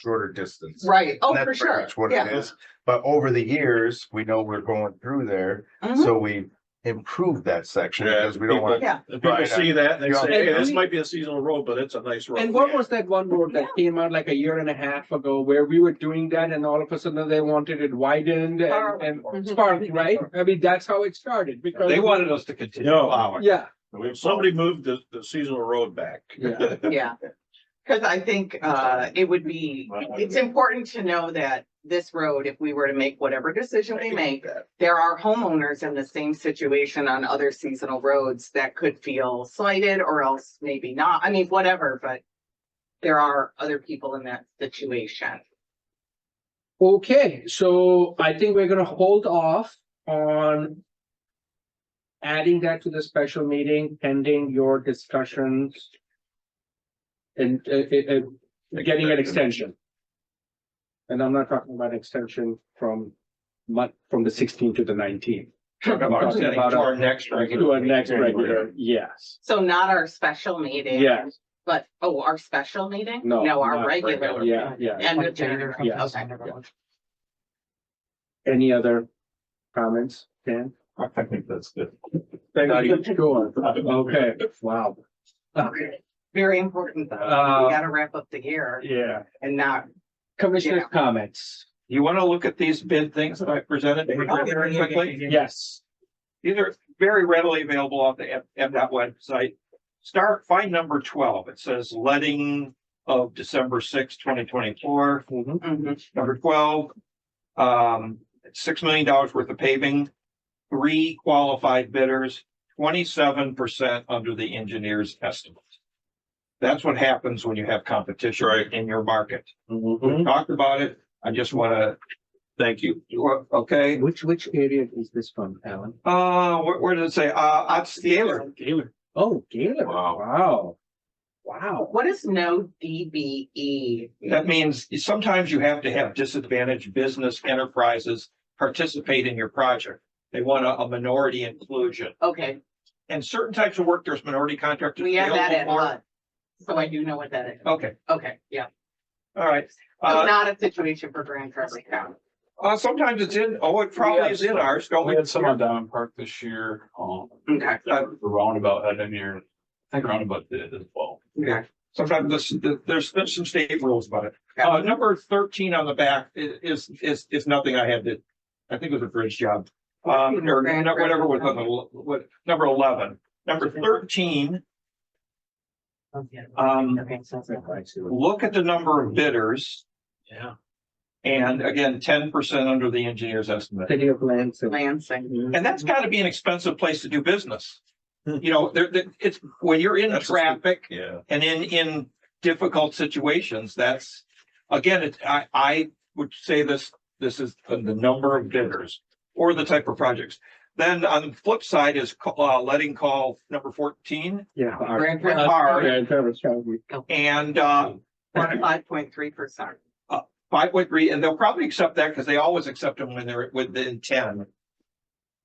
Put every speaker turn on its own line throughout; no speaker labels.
shorter distance.
Right, oh,
And that's
for
pretty
sure,
much What it
yeah.
is, but over the years, we know we're going through there,
Mhm.
so we improved that section
Yeah,
because we don't want.
people-
If People see that, they say, hey, this might be a seasonal road, but it's a nice road.
And what was that one road that came out like a year and a half ago where we were doing that and all of a sudden they wanted it widened and, and
Mhm.
sparked, right? I mean, that's how it started because.
They wanted us to continue.
No,
Yeah,
if somebody moved the, the seasonal road back.
yeah.
Yeah, because I think uh it would be, it's important to know that this road, if we were to make whatever decision we make, there are homeowners in the same situation on other seasonal roads that could feel slighted or else maybe not, I mean, whatever, but there are other people in that situation.
Okay, so I think we're gonna hold off on adding that to the special meeting pending your discussions and, uh, uh, uh, getting an extension. And I'm not talking about extension from month, from the sixteenth to the nineteenth. Talking about
To our next regular.
To our next
meeting.
regular, yes,
So not our special meeting.
Yes.
But, oh, our special meeting?
No,
No, our
not
regular.
regular.
yeah, yeah.
And the.
Yes.
Okay.
Any other comments, Dan?
I think that's good.
Not even Sure, okay, wow.
Very important though.
Uh,
We gotta wrap up the year
Yeah.
and not.
Commissioner's
Yeah.
comments,
You want to look at these bid things that I presented very quickly?
yes,
These are very readily available on the M, dot website. Start, find number twelve. It says letting of December sixth, twenty twenty-four.
Mhm.
Mhm.
Number twelve, um, six million dollars worth of paving, three qualified bidders, twenty-seven percent under the engineer's estimate. That's what happens when you have competition
Right.
in your market.
Mm-hmm.
We talked about it. I just want
Thank you.
to, okay,
Which, which area is this from, Alan?
uh, where, where did it say? Uh, Otscaler.
Oh, Gaylord,
Wow.
wow. Wow,
Oh, What is no E, DBE?
That means sometimes you have to have disadvantaged business enterprises participate in your project. They want a- a minority inclusion.
Okay,
And certain types of work, there's minority contractors.
we have that
available
at
for-
HUD. So I do know what that is.
Okay,
Okay, yeah.
all right.
So
Uh,
not a situation for Grand Traverse County.
uh, sometimes it's in, oh, it probably is in ours, don't
We
we?
had some on Diamond Park this year, um,
Okay,
the roundabout had in here, I think roundabout did as well.
okay.
Sometimes there's, there's, there's some state rules about it. Uh, number thirteen on the back i- is, is, is nothing I had to, I think it was a bridge job. Um, or no- whatever was on the, l- what, number eleven, number thirteen, um,
Okay, so it's-
look at the number of bidders.
Yeah.
And again, ten percent under the engineer's estimate.
city of Lansing.
Lansing.
And that's gotta be an expensive place to do business. You know, there, there- it's, when you're in
Hmm. That's a steep-
traffic
Yeah.
and in, in difficult situations, that's, again, it, I, I would say this, this is the number of bidders or the type of projects. Then on the flip side is, ca- uh, letting call number fourteen
Yeah.
Grand Traverse.
are,
Grand Traverse County.
and, uh,
Five point three percent.
five point three, and they'll probably accept that because they always accept them when they're within ten.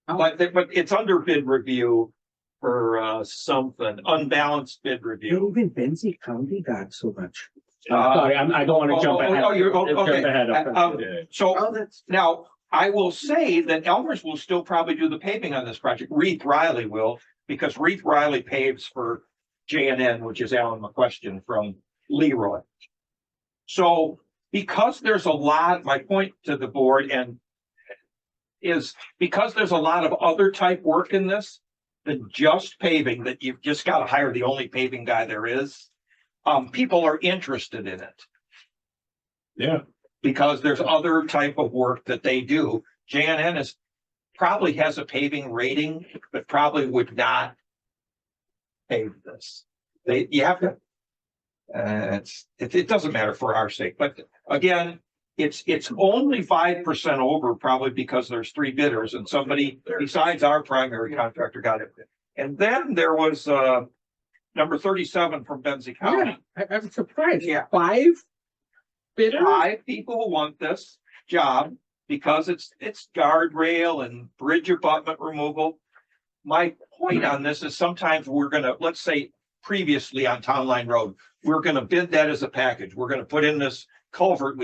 But, they- but it's under bid review for, uh, something, unbalanced bid review.
Even Benzie County got so much.
Uh,
I'm sorry, I'm, I don't
oh,
wanna jump
oh,
ahead.
oh, you're- oh,
Jump
okay.
ahead of-
Uh, um, So
Oh, that's,
now I will say that Elmer's will still probably do the paving on this project. Reeve Riley will, because Reeve Riley paves for J and N, which is Alan McQuestion from Leroy. So because there's a lot, my point to the board and is because there's a lot of other type work in this than just paving, that you've just got to hire the only paving guy there is. Um, people are interested in it
Yeah.
because there's other type of work that they do. JNN is probably has a paving rating, but probably would not pave this. They, you have to. Uh, it's, it, it doesn't matter for our sake, but again, it's, it's only five percent over probably because there's three bidders and somebody besides our primary contractor got it. And then there was, uh, number thirty-seven from Benzie County.
Yeah, I, I'm surprised.
um, Yeah.
Five bidders?
five people want this job because it's, it's guardrail and bridge abutment removal. My point on this is sometimes we're gonna, let's say previously on Town Line Road, we're gonna bid that as a package. We're gonna put in this culvert we